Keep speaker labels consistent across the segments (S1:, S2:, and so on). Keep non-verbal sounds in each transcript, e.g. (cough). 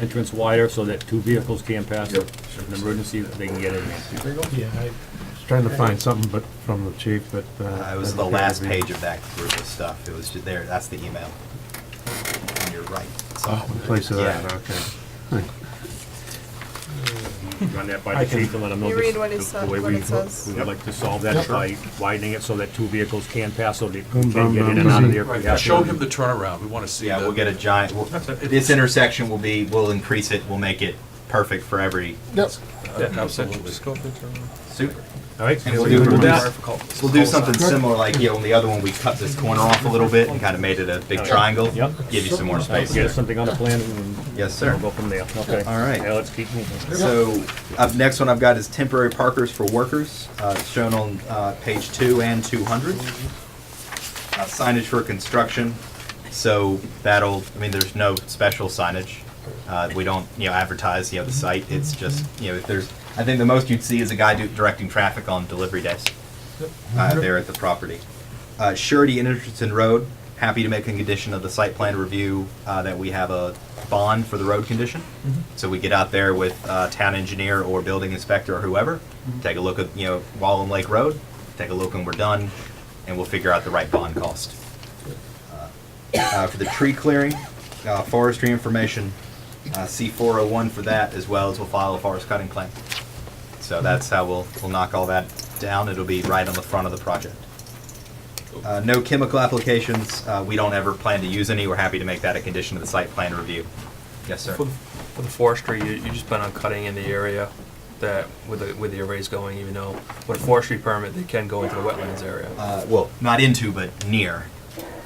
S1: entrance wider so that two vehicles can pass.
S2: Yep.
S1: If an emergency, they can get in there.
S3: Yeah, I,
S4: Trying to find something but from the chief, but.
S5: Uh, It was the last page of that group of stuff. It was ju- there, that's the email. And you're right. It's all-
S4: In place of that,
S5: Yeah.
S4: okay.
S1: Run that by the chief and let him know.
S6: You
S1: this-
S6: read what
S1: the-
S6: it
S1: the
S6: says-
S1: way
S6: what
S1: we
S6: it
S1: would-
S6: says.
S1: We would like to solve that by widening it so that two vehicles can pass, so they can
S4: bum,
S1: get in
S4: bum,
S1: and out of
S4: bum.
S1: there. if we
S2: Right,
S1: have
S2: show
S1: to.
S2: him the turnaround, we wanna see
S5: Yeah,
S2: the,
S5: we'll get a giant, we'll- this intersection will be, we'll increase it, we'll make it perfect for every,
S3: yep,
S2: absolutely. Just go for the turnaround.
S5: super.
S1: All right,
S5: And
S1: so
S5: we'll
S1: you
S5: do,
S1: do
S5: we'll
S1: that.
S5: do- we'll do something similar, like, you know, on the other one, we cut this corner off a little bit and kind of made it a big triangle.
S1: Oh, Yep.
S5: Give you some more space
S1: Get
S5: there.
S1: something on the plan and.
S5: Yes,
S1: and
S5: sir.
S1: We'll go from there, okay.
S5: All right.
S1: Now let's keep moving.
S5: So, up next one I've got is temporary parkers for workers, uh, it's shown on, uh, page two and two hundred. Uh, signage for construction, so that'll, I mean, there's no special signage. Uh, we don't, you know, advertise, you know, the site, it's just, you know, if there's, I think the most you'd see is a guy do, directing traffic on delivery days. Uh, there at the property. Uh, surety and Richardson Road, happy to make a condition of the site plan review, uh, that we have a bond for the road condition. So we get out there with uh, town engineer or building inspector or whoever, take a look at, you know, Wall and Lake Road, take a look when we're done, and we'll figure out the right bond cost. Uh, For the tree clearing, uh, forestry information, uh, C401 for that, as well as we'll file a forest cutting claim. So that's how we'll, we'll knock all that down. It'll be right on the front of the project. Uh, No chemical applications. Uh, We don't ever plan to use any. We're happy to make that a condition of the site plan review. Yes, sir.
S7: For, for the forestry, you, you just plan on cutting in the area that, with the, with the arrays going, even though, with a forestry permit, they can go into the wetlands area.
S5: uh, well, not into, but near.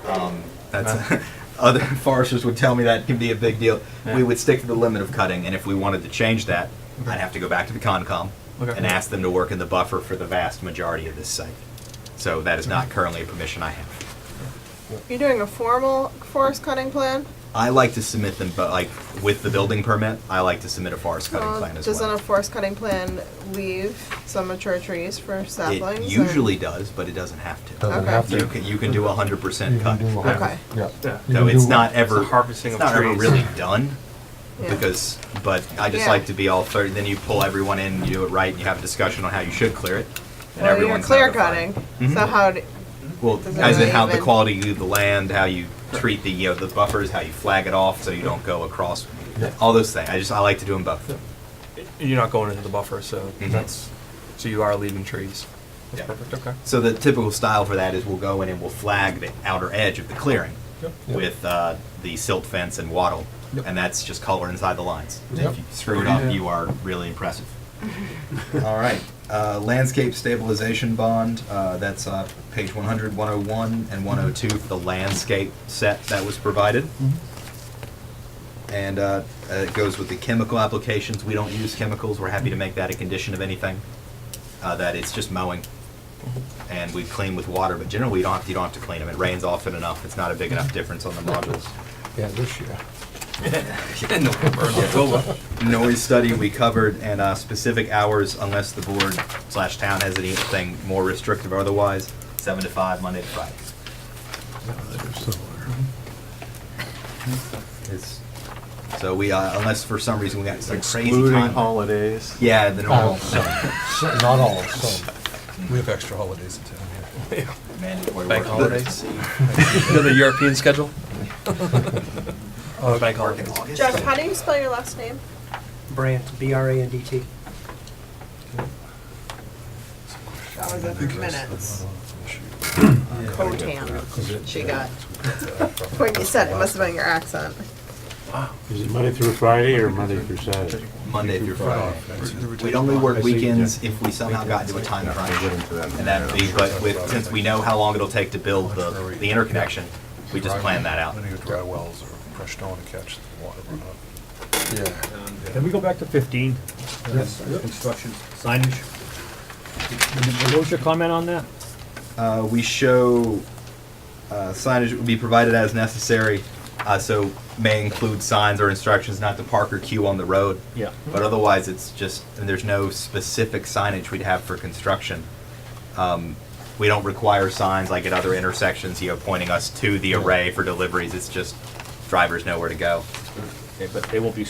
S5: Um, that's (laughs) other foresters would tell me that can be a big deal.
S7: Yeah.
S5: We would stick to the limit of cutting, and if we wanted to change that, I'd have to go back to the Concom
S7: Okay.
S5: and ask them to work in the buffer for the vast majority of this site. So that is not currently a permission I have.
S6: You're doing a formal forest cutting plan?
S5: I like to submit them, but like with the building permit, I like to submit a forest cutting
S6: Uh,
S5: plan as
S6: Doesn't
S5: well.
S6: a forest cutting plan leave some mature trees for saplings?
S5: it
S6: and-
S5: usually does, but it doesn't have to.
S3: doesn't
S6: Okay.
S3: have
S5: You
S3: to.
S5: can you can do a hundred percent
S3: You can
S5: cut.
S3: do a hundred-
S6: Okay,
S3: Yeah.
S7: Yeah.
S3: You
S5: So
S3: can
S5: it's
S3: do-
S5: not ever
S7: It's the harvesting
S5: it's
S7: of
S5: not ever
S7: trees.
S5: really done
S6: yeah.
S5: because but I just
S6: Yeah.
S5: like to be all thirty. Then you pull everyone in, you do it right, and you have a discussion on how you should clear it. And
S6: Well, you're
S5: everyone's
S6: clear
S5: notified.
S6: cutting,
S5: Mm-hmm.
S6: so how, d-
S5: Well,
S6: Does it
S5: as in
S6: really
S5: how the
S6: even-
S5: quality of the land, how you treat the you know, the buffers, how you flag it off so you don't go across. All those things. I just I like to do them both.
S7: You're not going into the buffer, so
S5: Mhm.
S7: that's, so you are leaving trees. That's
S5: Yeah.
S7: perfect, okay.
S5: (laughs) So the typical style for that is we'll go in and we'll flag the outer edge of the clearing with uh, the silt fence and wattle, and that's just color inside the lines.
S3: Yep.
S5: If you screw it up, you are really impressive. (laughs) All right, uh, landscape stabilization bond. Uh, that's uh, page 100, 101, and 102 for the landscape set that was provided. And uh, uh, it goes with the chemical applications. We don't use chemicals. We're happy to make that a condition of anything. Uh, that it's just mowing and we clean with water, but generally you don't have, you don't have to clean them. It rains often enough. It's not a big enough difference on the modules.
S3: Yeah, this year.
S7: No, (laughs) we're not.
S5: Noise study we covered and uh, specific hours unless the board slash town has anything more restrictive otherwise, seven to five, Monday to Friday. It's- So we, uh, unless for some reason we got some crazy time.
S8: holidays.
S5: Yeah, the
S7: Oh,
S5: normal
S3: So, Not all, so.
S2: We have extra holidays in town here.
S5: mandatory
S7: Bank
S5: work.
S7: holidays. Another
S5: (laughs)
S7: European schedule? (laughs) Oh, bank
S5: Work in
S7: holidays.
S5: August.
S6: Jeff, how do you spell your last name?
S9: Brandt, B-R-A-N-D-T.
S6: That was in minutes. (laughs) Cotan, she got. When you said, it must have been your accent.
S4: Is it Monday through Friday or Monday through Saturday?
S5: Monday through
S2: Oh,
S5: Friday. We'd only work weekends if we somehow got into a time crunch. And that'd be, but with, since we know how long it'll take to build the, the interconnection, we just plan that out.
S8: Linear dry wells or crushed stone to catch the water runoff.
S1: Can we go back to fifteen?
S3: Yes.
S1: Construction signage. Did- What was your comment on that?
S5: Uh, we show uh, signage will be provided as necessary, uh, so may include signs or instructions not to park or queue on the road.
S1: Yeah.
S5: But otherwise, it's just, and there's no specific signage we'd have for construction. Um, We don't require signs like at other intersections, you know, pointing us to the array for deliveries. It's just drivers know where to go.
S1: Okay, But they won't be